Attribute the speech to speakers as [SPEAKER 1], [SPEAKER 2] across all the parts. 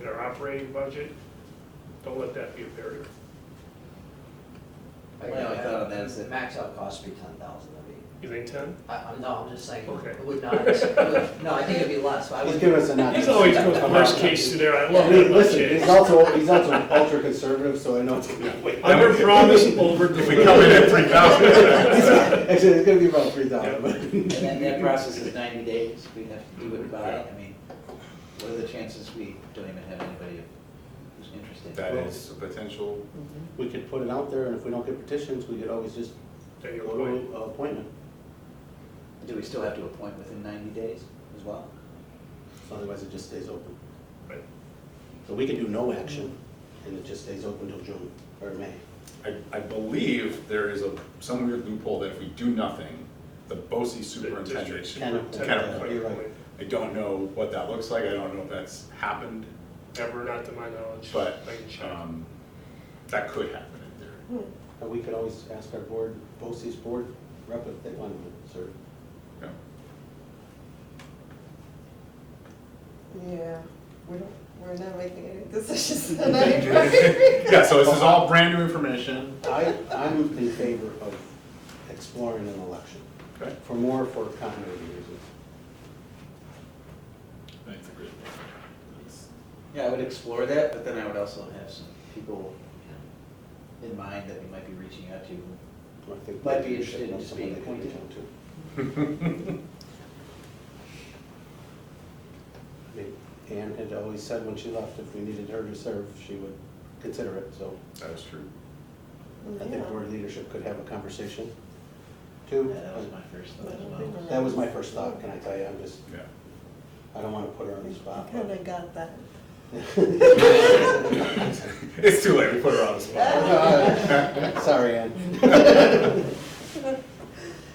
[SPEAKER 1] their operating budget, don't let that be a barrier.
[SPEAKER 2] My
[SPEAKER 3] Well,
[SPEAKER 2] only thought on that is
[SPEAKER 3] the
[SPEAKER 2] that,
[SPEAKER 3] max out cost would be ten thousand, I mean,
[SPEAKER 1] You think ten?
[SPEAKER 3] I, I'm, no, I'm just saying,
[SPEAKER 1] Okay.
[SPEAKER 3] it would not, it would- no, I think it'd be less, but I
[SPEAKER 2] he's
[SPEAKER 3] would.
[SPEAKER 2] giving us a nudge.
[SPEAKER 1] He's always goes worst case scenario, I love that about
[SPEAKER 2] Listen, he's
[SPEAKER 1] Jay.
[SPEAKER 2] also, he's also ultra conservative, so I know it's gonna be.
[SPEAKER 1] Under promise, over
[SPEAKER 4] If we come in
[SPEAKER 1] deliver.
[SPEAKER 4] at three thousand.
[SPEAKER 2] Actually, it's gonna be about three thousand.
[SPEAKER 5] And then that process is ninety days, we have to do it by, I mean, what are the chances we don't even have anybody who's interested?
[SPEAKER 4] That is a potential,
[SPEAKER 2] We could put it out there, and if we don't get petitions, we could always just
[SPEAKER 1] Take your
[SPEAKER 2] go
[SPEAKER 1] point.
[SPEAKER 2] to a appointment,
[SPEAKER 5] Do we still have to appoint within ninety days as well?
[SPEAKER 2] so otherwise it just stays open.
[SPEAKER 1] Right.
[SPEAKER 2] So we could do no action, and it just stays open till June or May.
[SPEAKER 4] I, I believe there is a, some weird loophole that if we do nothing, the BOSI superintendent should.
[SPEAKER 2] Kind of-
[SPEAKER 4] kind of
[SPEAKER 2] yeah,
[SPEAKER 4] put-
[SPEAKER 2] you're right.
[SPEAKER 4] I don't know what that looks like, I don't know if that's happened,
[SPEAKER 1] Ever, not to my knowledge.
[SPEAKER 4] but,
[SPEAKER 1] I can check.
[SPEAKER 4] um, that could happen in theory.
[SPEAKER 2] But we could always ask our board, BOCES board rep if they wanted to serve.
[SPEAKER 4] Yeah.
[SPEAKER 6] Yeah, we don't, we're not making any decisions tonight, right?
[SPEAKER 4] Yeah, so this is all brand new information.
[SPEAKER 2] I, I'm in favor of exploring an election,
[SPEAKER 4] Okay.
[SPEAKER 2] for more for continuity reasons.
[SPEAKER 4] That's a great point.
[SPEAKER 5] Yeah, I would explore that, but then I would also have some people you know, in mind that we might be reaching out to.
[SPEAKER 2] I think
[SPEAKER 5] Might be
[SPEAKER 2] we should
[SPEAKER 5] interested in
[SPEAKER 2] know
[SPEAKER 5] just
[SPEAKER 2] someone
[SPEAKER 5] being
[SPEAKER 2] they can reach
[SPEAKER 5] appointed.
[SPEAKER 2] out to. I mean, Anne had always said when she left, if we needed her to serve, she would consider it, so
[SPEAKER 4] That is true.
[SPEAKER 2] I think board leadership could have a conversation. Two,
[SPEAKER 5] Yeah, that was my first thought as well.
[SPEAKER 2] that was my first thought, can I tell you, I'm just,
[SPEAKER 4] Yeah.
[SPEAKER 2] I don't wanna put her on the spot. but-
[SPEAKER 6] Kind of got that.
[SPEAKER 4] It's too late, we put her on the spot.
[SPEAKER 2] Uh, Sorry, Ann.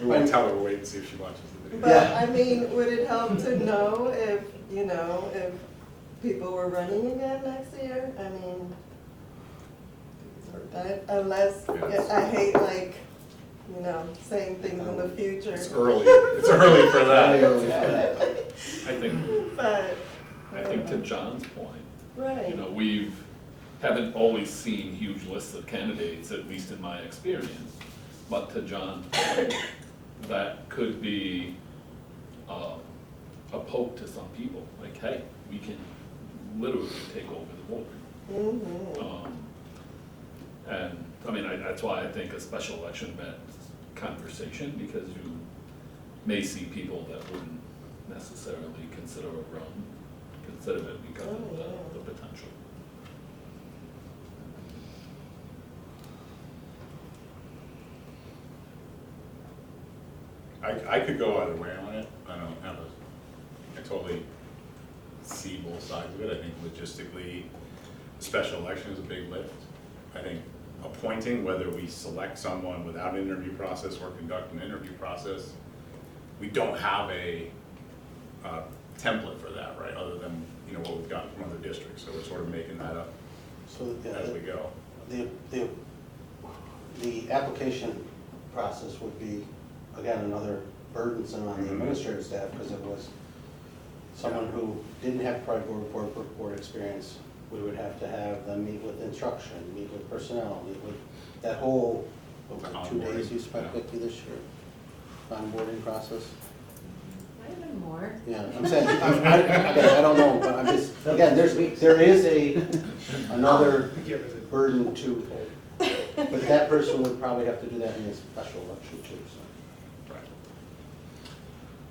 [SPEAKER 4] We won't tell her, we'll wait and see if she watches the video.
[SPEAKER 6] But,
[SPEAKER 2] Yeah.
[SPEAKER 6] I mean, would it help to know if, you know, if people were running again next year? I mean, I- unless,
[SPEAKER 4] Yes.
[SPEAKER 6] I hate like, you know, saying things in the future.
[SPEAKER 4] It's early, it's early for that.
[SPEAKER 2] Yeah.
[SPEAKER 7] I think,
[SPEAKER 6] But,
[SPEAKER 7] I think to John's point, you
[SPEAKER 6] right.
[SPEAKER 7] know, we've, haven't always seen huge lists of candidates, at least in my experience. But to John's point, that could be um, a poke to some people, like, hey, we can literally take over the board.
[SPEAKER 6] Mhm.
[SPEAKER 7] Um, And, I mean, I, that's why I think a special election meant conversation, because you may see people that wouldn't necessarily consider a run, consider it because of
[SPEAKER 6] Oh, yeah.
[SPEAKER 7] the, the potential.
[SPEAKER 4] I, I could go either way on it, I don't have a, I totally see both sides of it, I think logistically, a special election is a big lift. I think appointing, whether we select someone without an interview process or conduct an interview process, we don't have a, uh, template for that, right, other than, you know, what we've gotten from other districts, so we're sort of making that up
[SPEAKER 2] So
[SPEAKER 4] as we
[SPEAKER 2] the, uh,
[SPEAKER 4] go.
[SPEAKER 2] the, the, the application process would be, again, another burdensome on the
[SPEAKER 4] Mhm.
[SPEAKER 2] administrative staff, because it was someone who didn't have prior board, board, board- board experience, we would have to have them meet with instruction, meet with personnel, meet with, that whole, what was it, two
[SPEAKER 4] Onboarding,
[SPEAKER 2] days you spent
[SPEAKER 4] yeah.
[SPEAKER 2] with you this year? Onboarding process?
[SPEAKER 8] Might have been more.
[SPEAKER 2] Yeah, I'm saying, I'm- I, again, I don't know, but I'm just, again, there's, there is a, another
[SPEAKER 1] Give it a-
[SPEAKER 2] burden to, but that person would probably have to do that in a special election too, so.
[SPEAKER 4] Right.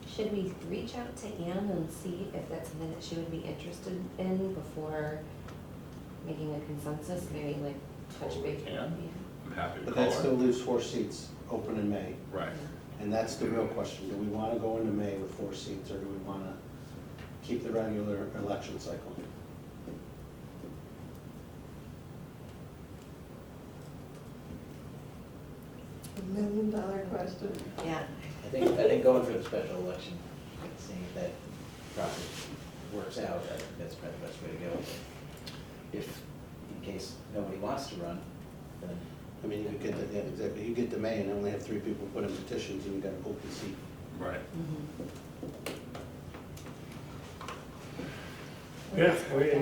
[SPEAKER 8] Should we reach out to Anne and see if that's something that she would be interested in before making a consensus, maybe like touch
[SPEAKER 4] Totally
[SPEAKER 8] base?
[SPEAKER 4] can. I'm happy to
[SPEAKER 2] But that
[SPEAKER 4] call
[SPEAKER 2] still
[SPEAKER 4] her.
[SPEAKER 2] leaves four seats open in May,
[SPEAKER 4] Right.
[SPEAKER 2] and that's the real question, do we wanna go into May with four seats, or do we wanna keep the regular election cycle?
[SPEAKER 6] Million dollar question.
[SPEAKER 8] Yeah,
[SPEAKER 5] I think, I think going for the special election, seeing if that process works out, I think that's probably the best way to go. If, in case nobody wants to run, then
[SPEAKER 2] I mean, you could get, to- yeah, exactly, you get to May and only have three people put in petitions, and you got an open seat.
[SPEAKER 4] Right.
[SPEAKER 8] mhm.
[SPEAKER 1] Yeah, we-